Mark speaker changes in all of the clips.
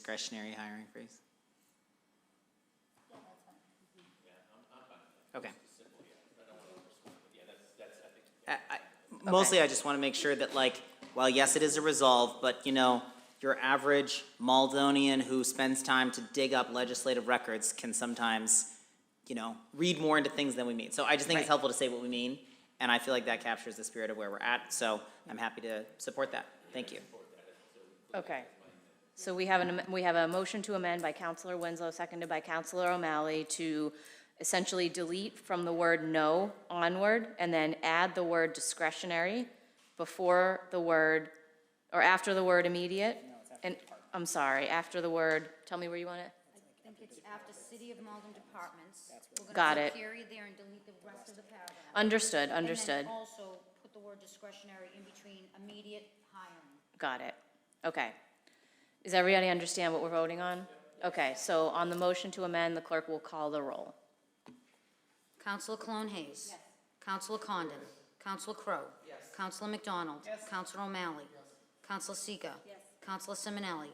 Speaker 1: discretionary hiring freeze? Okay. I- I- Mostly, I just want to make sure that like, well, yes, it is a resolve, but you know, your average Maldonian who spends time to dig up legislative records can sometimes, you know, read more into things than we mean. So I just think it's
Speaker 2: Right.
Speaker 1: helpful to say what we mean, and I feel like that captures the spirit of where we're at, so I'm happy to support that. Thank you.
Speaker 2: Okay. So we have an, am- we have a motion to amend by Counselor Winslow, seconded by Counselor O'Malley to essentially delete from the word no onward and then add the word discretionary before the word, or after the word immediate? And, I'm sorry, after the word, tell me where you want it?
Speaker 3: I think it's after City of Malden Departments. We're gonna
Speaker 2: Got
Speaker 3: put a
Speaker 2: it.
Speaker 3: Period there and delete the rest of the paragraph.
Speaker 2: Understood, understood.
Speaker 3: And then also put the word discretionary in between immediate hiring.
Speaker 2: Got it. Okay. Does everybody understand what we're voting on? Okay, so on the motion to amend, the clerk will call the roll.
Speaker 3: Counselor Cologne Hayes. Yes. Counselor Condon. Counselor Crowe. Yes. Counselor McDonald. Yes. Counselor O'Malley. Yes. Counselor Seega. Yes. Counselor Simonelli.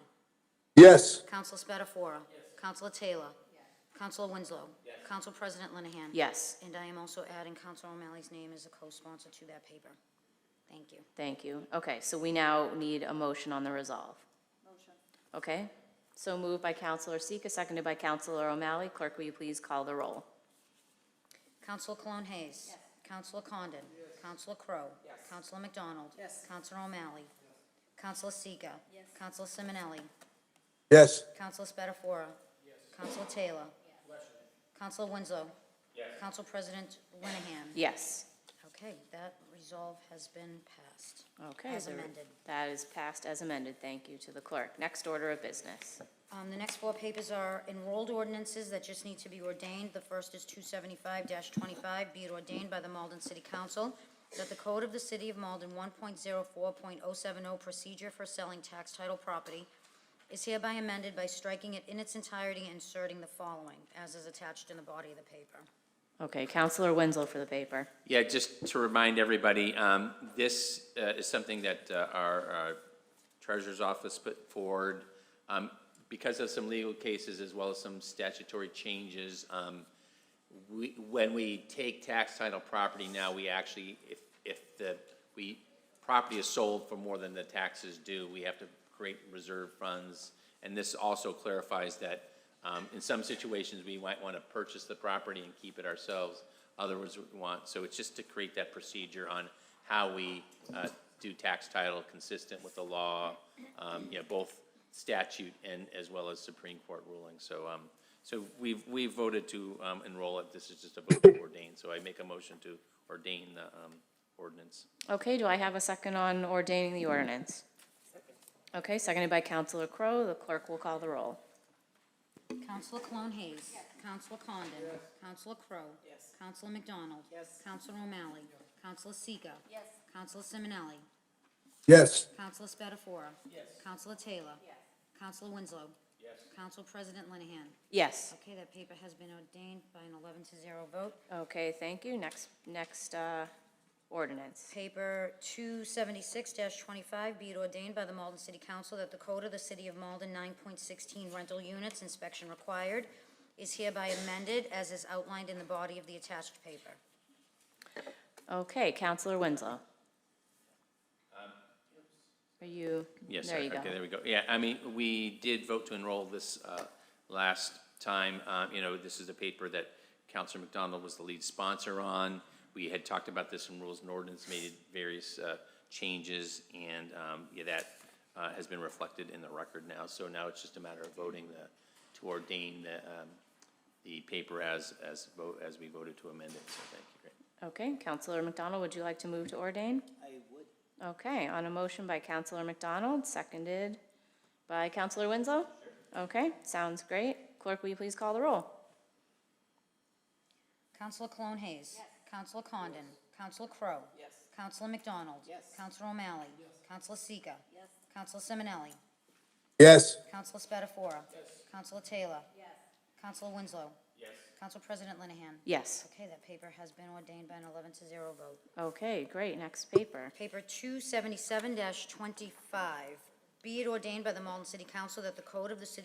Speaker 4: Yes,
Speaker 3: Counselor Spatafora. Yes. Counselor Taylor. Yes. Counselor Winslow. Yes. Counsel President Linehan.
Speaker 2: Yes.
Speaker 3: And I am also adding Counselor O'Malley's name as a co-sponsor to that paper. Thank you.
Speaker 2: Thank you. Okay, so we now need a motion on the resolve. Motion. Okay, so moved by Counselor Seeka, seconded by Counselor O'Malley. Clerk, will you please call the roll?
Speaker 3: Counselor Cologne Hayes. Yes. Counselor Condon. Yes. Counselor Crowe. Yes. Counselor McDonald. Yes. Counselor O'Malley. Yes. Counselor Seega. Yes. Counselor Simonelli.
Speaker 4: yes,
Speaker 3: Counselor Spatafora. Yes. Counselor Taylor. Yes. Counselor Winslow. Yes. Counsel President Linehan.
Speaker 2: Yes.
Speaker 3: Okay, that resolve has been passed.
Speaker 2: Okay.
Speaker 3: As
Speaker 2: the-
Speaker 3: amended.
Speaker 2: That is passed as amended. Thank you to the clerk. Next order of business.
Speaker 3: Um, the next four papers are enrolled ordinances that just need to be ordained. The first is two seventy-five twenty-five, be it ordained by the Malden City Council that the code of the city of Malden one point zero four point oh seven oh procedure for selling tax title property is hereby amended by striking it in its entirety and inserting the following, as is attached in the body of the paper.
Speaker 2: Okay, Counselor Winslow for the paper.
Speaker 5: Yeah, just to remind everybody, um, this uh, is something that uh, our our treasurer's office put forward. Um, Because of some legal cases as well as some statutory changes, um, we, when we take tax title property now, we actually, if, if the, we, property is sold for more than the taxes due, we have to create reserve funds. And this also clarifies that, um, in some situations, we might want to purchase the property and keep it ourselves. Others would want, so it's just to create that procedure on how we, uh, do tax title consistent with the law, um, you know, both statute and as well as Supreme Court ruling. So, um, so we've, we voted to, um, enroll it. This is just a vote to ordain. So I make a motion to ordain the, um, ordinance.
Speaker 2: Okay, do I have a second on ordaining the ordinance? Okay, seconded by Counselor Crowe. The clerk will call the roll.
Speaker 3: Counselor Cologne Hayes. Yes. Counselor Condon. Yes. Counselor Crowe. Yes. Counselor McDonald. Yes. Counselor O'Malley. Yes. Counselor Seega. Yes. Counselor Simonelli.
Speaker 4: yes,
Speaker 3: Counselor Spatafora. Yes. Counselor Taylor. Yes. Counselor Winslow. Yes. Counsel President Linehan.
Speaker 2: Yes.
Speaker 3: Okay, that paper has been ordained by an 11 to 0 vote.
Speaker 2: Okay, thank you. Next, next uh, ordinance.
Speaker 3: Paper 276-25, be it ordained by the Malden City Council that the code of the City of Malden 9.16 rental units inspection required is hereby amended as is outlined in the body of the attached paper.
Speaker 2: Okay, Counselor
Speaker 5: Um,
Speaker 2: Winslow. Are you,
Speaker 5: Yes,
Speaker 2: there
Speaker 5: sir.
Speaker 2: you go.
Speaker 5: Okay, there we go. Yeah, I mean, we did vote to enroll this uh, last time. Uh, You know, this is a paper that Counselor McDonald was the lead sponsor on. We had talked about this in Rules and Ordinance, made various uh, changes, and um, yeah, that uh, has been reflected in the record now. So now it's just a matter of voting the, to ordain the, um, the paper as, as vote, as we voted to amend it. So thank you. Great.
Speaker 2: Okay, Counselor McDonald, would you like to move to ordain? I would. Okay, on a motion by Counselor McDonald, seconded by Counselor Winslow? Okay, sounds great. Clerk, will you please call the roll?
Speaker 3: Counselor Cologne Hayes. Yes. Counselor Condon. Counselor Crowe. Yes. Counselor McDonald. Yes. Counselor O'Malley. Yes. Counselor Seega. Yes. Counselor Simonelli.
Speaker 4: yes,
Speaker 3: Counselor Spatafora. Yes. Counselor Taylor. Yes. Counselor Winslow. Yes. Counsel President Linehan.
Speaker 2: Yes.
Speaker 3: Okay, that paper has been ordained by an 11 to 0 vote.
Speaker 2: Okay, great, next paper.
Speaker 3: Paper 277-25, Be it ordained by the Malden City Council that the code of the city